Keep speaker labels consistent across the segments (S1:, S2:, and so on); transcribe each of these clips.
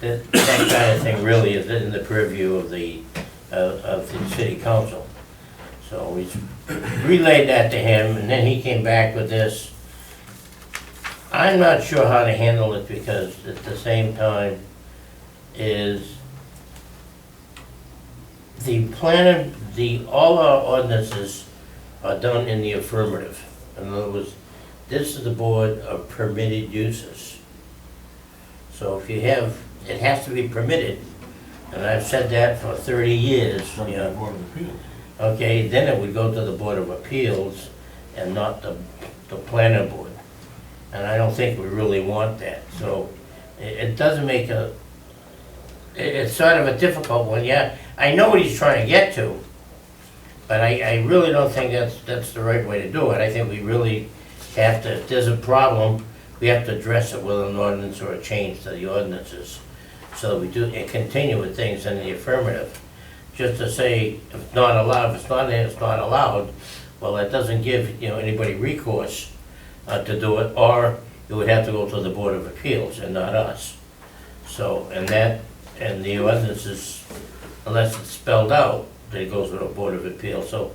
S1: that, that kind of thing really is in the purview of the, of, of the city council. So we relayed that to him, and then he came back with this. I'm not sure how to handle it, because at the same time is the plan, the, all our ordinances are done in the affirmative. In other words, this is the board of permitted uses. So if you have, it has to be permitted, and I've said that for thirty years, you know.
S2: Board of Appeals.
S1: Okay, then it would go to the Board of Appeals and not the, the planning board. And I don't think we really want that, so it, it doesn't make a, it, it's sort of a difficult one, yeah. I know what he's trying to get to, but I, I really don't think that's, that's the right way to do it. I think we really have to, if there's a problem, we have to address it with an ordinance or a change to the ordinances. So we do, and continue with things in the affirmative just to say, if it's not allowed, if it's not in, it's not allowed, well, that doesn't give, you know, anybody recourse uh, to do it, or it would have to go to the Board of Appeals and not us. So, and that, and the ordinances, unless it's spelled out, that it goes to the Board of Appeals, so,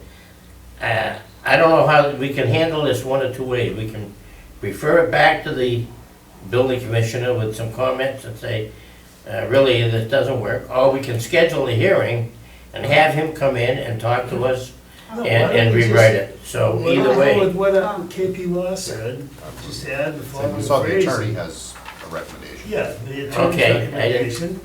S1: uh, I don't know how, we can handle this one or two ways, we can refer it back to the building commissioner with some comments and say, uh, really, this doesn't work, or we can schedule a hearing and have him come in and talk to us and, and rewrite it. So either way,
S3: With what uh, KP Law said, just add the
S4: So
S3: following
S4: we saw the
S3: phrase.
S4: attorney has a recommendation.
S3: Yeah, the attorney's
S1: Okay, I didn't-
S3: recommendation.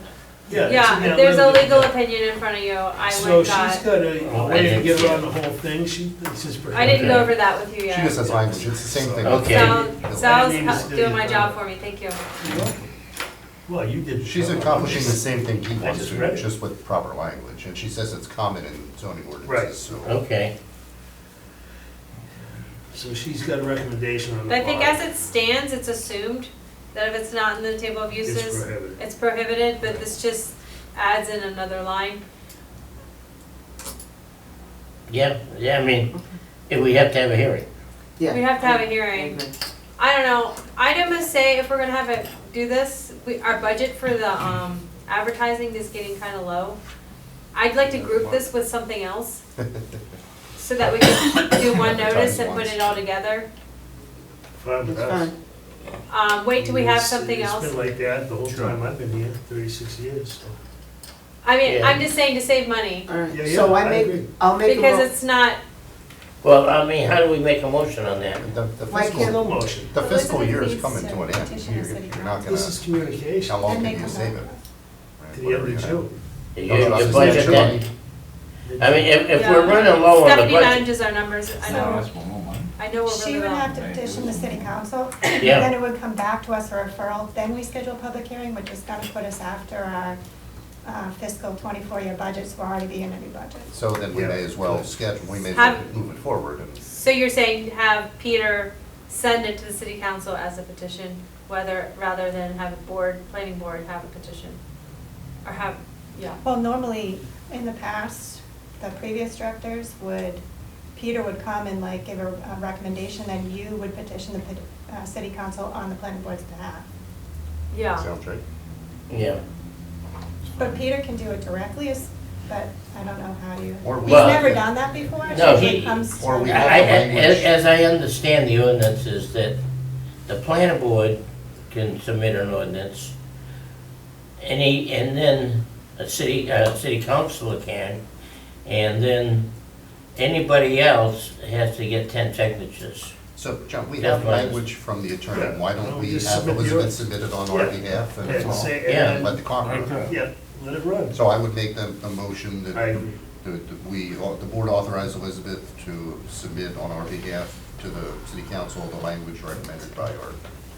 S5: Yeah, if there's a legal opinion in front of you, I
S3: So
S5: would
S3: she's
S5: not,
S3: got a a
S1: Oh, I
S3: way to
S1: didn't
S3: get
S1: see
S3: around
S1: it.
S3: the whole thing, she, it's just.
S5: I didn't
S1: know
S5: go
S1: Okay.
S5: over that with you
S4: She
S5: yet.
S4: just has language, it's the same thing.
S1: Okay.
S5: Sal, Sal's
S3: name is
S5: hel- doing my
S3: Steve.
S5: job for me, thank you.
S3: Well, you did.
S4: She's accomplishing the same thing he wants
S3: just read
S4: to,
S3: it.
S4: just with proper language, and she says it's common in zoning
S3: Right. Oh.
S4: ordinances, so.
S1: okay,
S3: So she's got a recommendation on the.
S5: But I think
S3: bottom.
S5: as it stands, it's assumed that if it's not in the table of
S3: It's
S5: uses,
S3: prohibited.
S5: it's prohibited, but this just adds in another line.
S1: yeah, yeah, I mean, if we have to have a hearing.
S6: Yeah.
S5: We have to have a hearing. I don't know, I'd almost say if we're gonna have it, do this, we, our budget for the, um, advertising is getting kinda low. I'd like to group this with something else, so that we can do one notice and put it all together.
S3: Fine with us.
S6: That's fine.
S5: Um, wait till we have
S3: It's-
S5: something
S3: It's
S5: else.
S3: been like that the whole
S4: Sure.
S3: time I've been here, thirty-six years, so.
S5: I mean,
S1: Yeah.
S5: I'm just saying to save money,
S6: All
S3: Yeah,
S6: right,
S3: yeah,
S6: so
S3: I
S6: I
S3: agree.
S6: make, I'll make a
S5: because
S6: mo-
S5: it's not,
S1: Well, I mean, how do we make a motion on that?
S4: The the
S6: Why
S4: fiscal,
S3: No motion.
S4: the fiscal
S7: Elizabeth
S4: year is
S7: needs
S4: coming
S7: to
S4: to an end,
S7: petition
S4: you're,
S7: the city
S4: you're not gonna,
S3: This is communication.
S4: how long
S7: Then
S4: can
S7: they
S4: you
S7: come
S4: save it?
S7: back.
S4: Right,
S3: To the
S4: whatever
S3: end
S4: you
S3: of
S4: have.
S3: June.
S1: Your your
S4: It's not
S1: budget
S4: June.
S1: that, I mean, if, if we're
S5: Yeah.
S1: running low on the
S5: Stephanie
S1: budget,
S5: manages our numbers, I know,
S2: That's one more month.
S5: I know we're
S7: She
S5: really
S7: would
S5: low.
S7: have to petition the city council,
S1: Yeah.
S7: then it would come back to us for referral, then we schedule a public hearing, which is gonna put us after our uh, fiscal twenty-four year budget, so we're already beginning a new budget.
S4: So then we
S3: Yeah.
S4: may as well schedule, we may as
S5: Have-
S4: well move it forward and
S5: So you're saying have Peter send it to the city council as a petition, whether, rather than have a board, planning board have a petition? Or have, yeah,
S7: Well, normally, in the past, the previous directors would, Peter would come and like give a a recommendation, then you would petition the pet- uh, city council on the planning board's behalf.
S5: yeah.
S4: sound check.
S1: yeah,
S7: But Peter can do it directly, is- but I don't know how you,
S4: Or we-
S7: he's never done that before. It
S1: No,
S7: usually
S1: he-
S7: comes to-
S4: or we-
S1: I, I- as, as I understand the ordinance is that the planning board can submit an ordinance. Any, and then a city, uh, city councilor can, and then anybody else has to get ten signatures.
S4: So, John, we
S1: Yeah,
S4: have
S1: but-
S4: language from the attorney, why
S3: Yeah.
S4: don't we
S3: Just
S4: have
S3: submit the
S4: Elizabeth
S3: ordinance.
S4: submit it on our
S3: Yeah.
S4: behalf and
S3: And
S4: all,
S3: say,
S1: Yeah,
S3: and
S4: let the Congress.
S2: Okay.
S3: yeah, let it run.
S4: So I would make the, a motion that
S3: I agree.
S4: that we, the board authorized Elizabeth to submit on our behalf to the city council the language recommended by our,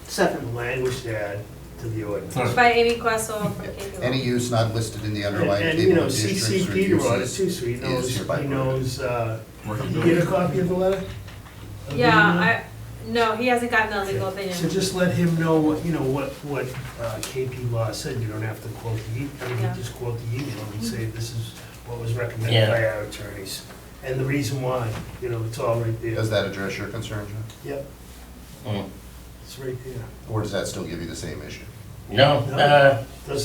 S3: The
S6: second.
S3: language to add to the ordinance.
S2: Sorry.
S5: By Amy Questle from KP
S4: any use not listed in the
S3: And,
S4: underlying
S3: and, you
S4: table
S3: know,
S4: of districts or
S3: CC Peter on it too,
S4: uses.
S3: so he
S4: is
S3: knows,
S4: hereby
S3: he
S4: prohibited.
S3: knows, uh,
S2: Working
S3: did you
S2: building.
S3: get a copy of the letter? Of the email?
S5: Yeah, I, no, he hasn't gotten a legal
S3: So
S5: opinion.
S3: just let him know what, you know, what, what uh, KP Law said, you don't have to quote the, e- I mean,
S5: Yeah. Mm-hmm.
S3: you just quote the email and say, this is what was recommended
S1: Yeah.
S3: by our attorneys, and the reason why, you know, it's all right there.
S4: Does that address your concern, John?
S3: Yep,
S1: Mm.
S3: it's right there.
S4: Or does that still give you the same issue?
S1: No,
S3: No.
S1: uh,